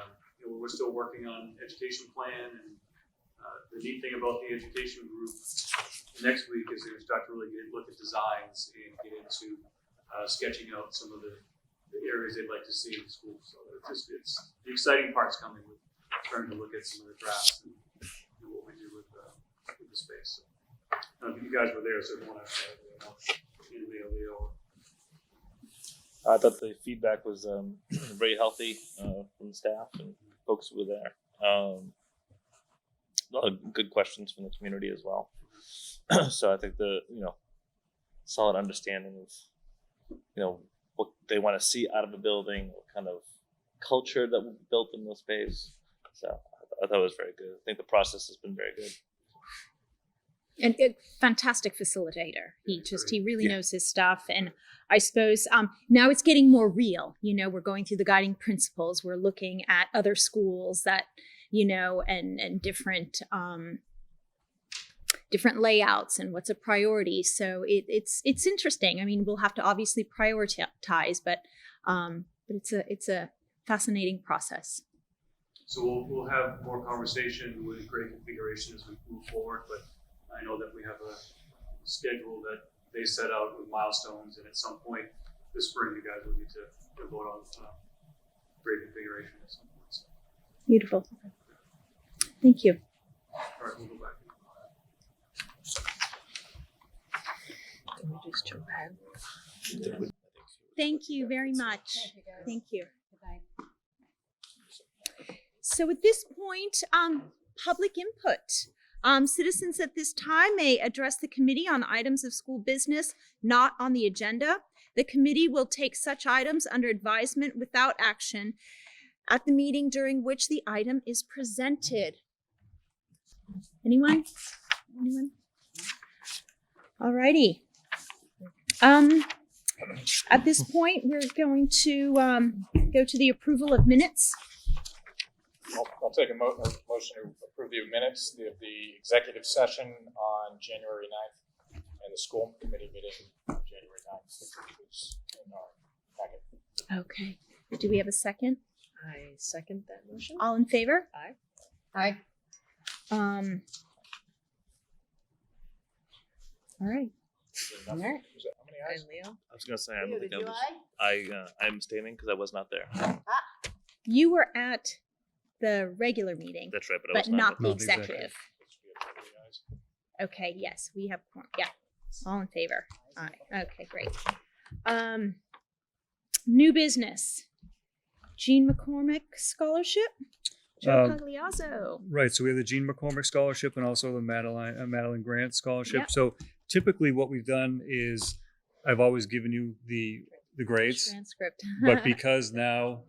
um, you know, we're still working on education plan and uh, the neat thing about the education group next week is they're start to really get, look at designs and get into uh, sketching out some of the, the areas they'd like to see in the school. So it's just, it's, the exciting part's coming with starting to look at some of the drafts and do what we do with, uh, with the space. So, I don't know if you guys were there, so if you want to, you know, Leo, Leo, I thought the feedback was um, very healthy uh, from staff and folks who were there. Um, a lot of good questions from the community as well. so I think the you know solid understanding of you know what they want to see out of a building, what kind of culture that will be built in the space. So I, th- I thought it was very good. I think the process has been very good. and a fantastic facilitator. He just he really Yeah. knows his stuff. And I suppose um, now it's getting more real. You know, we're going through the guiding principles. We're looking at other schools that you know and and different um, different layouts and what's a priority. So it, it's it's interesting. I mean, we'll have to obviously prioritize, but um, but it's a it's a fascinating process. So we'll, we'll have more conversation with great configuration as we move forward, but I know that we have a schedule that they set out with milestones, and at some point this spring, you guys will need to to vote on, uh, great configuration at some point, so, Beautiful. Thank you. all right, we'll go back. Thank you very much. Thank you. So at this point, um, public input. Um, citizens at this time may address the committee on items of school business not on the agenda. The committee will take such items under advisement without action at the meeting during which the item is presented. Anyone? Anyone? Alrighty. Um, at this point, we're going to um, go to the approval of minutes. I'll, I'll take a mo- a motion to approve the minutes of the executive session on January ninth and the school committee meeting on January ninth, which is in our packet. Okay. Do we have a second? I second that motion. All in favor? Aye. Um. All right. Is there All enough- right. is that- How many ayes? And Leo? I was gonna say I don't think I was. I uh, I'm abstaining because I was not there. You were at the regular meeting, That's right, but I but was not. not the Not the executive. executive. Should be able to ayes. Okay, yes, we have, quorum. yeah, all in favor. All right, okay, great. Um, new business. Gene McCormick Scholarship, Joe Um, Pagliazzo. Right. So we have the Gene McCormick Scholarship and also the Madeline uh, Madeline Grant Scholarship. Yep. So typically, what we've done is I've always given you the the grades, Transcript. but because now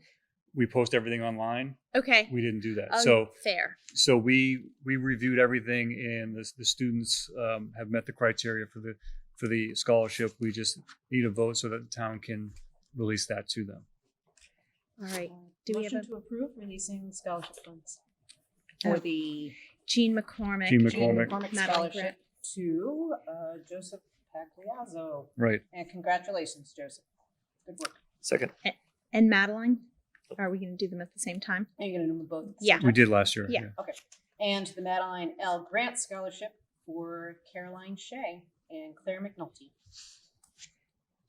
we post everything online, Okay. we didn't do that. Oh, so fair. so we we reviewed everything, and the, the students um, have met the criteria for the for the scholarship. We just need a vote so that the town can release that to them. All right. Uh, Do we have Motion a- to approve releasing scholarship funds? For Oh. the Gene McCormick. Gene Jane McCormick. McCormick Madeline Scholarship Grant. to uh, Joseph Pagliazzo. Right. And congratulations, Joseph. Good work. Second. And Madeline. Are we going to do them at the same time? Are you gonna do them both? at the same Yeah. time? We did last year. Yeah. And the Madeline L. Grant Scholarship for Caroline Shea and Claire McNulty.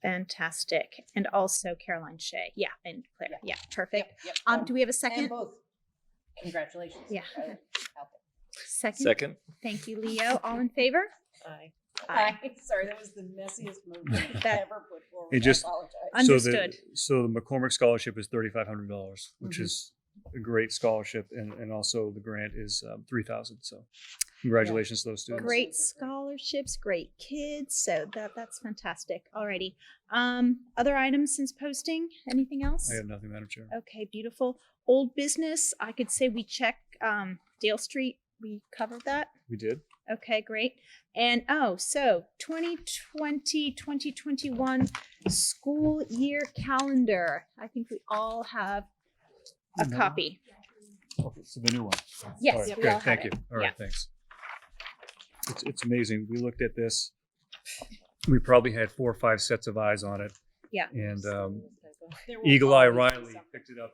Fantastic. And also Caroline Shea. Yeah. And Claire. Yeah. Yep, perfect. yep. Um, do we have a And second? both. Congratulations. Yeah. Out Second. Second. Thank you, Leo. All in favor? there. Aye. Aye. Sorry, that was the messiest motion I've That- ever put forward. It just- I apologize. Understood. So the, so the McCormick scholarship is thirty five hundred dollars, which Mhm. is a great scholarship, and and also the grant is um, three thousand. So congratulations to those students. Great Those are great. scholarships, great kids. So that that's fantastic. Alrighty. Um, other items since posting? Anything else? I have nothing, Madam Chair. Okay, beautiful. Old business. I could say we check um, Dale Street. We covered that. We did. Okay, great. And oh, so 2020, 2021 school year calendar. I think we all have a Mhm. copy. Okay, so the new one. Yes, All right, we great, all have Thank it. you. All right, thanks. It's it's amazing. We looked at this. We probably had four or five sets of eyes on it, Yeah. and um, There will Eagle Eye always be Riley something. picked it up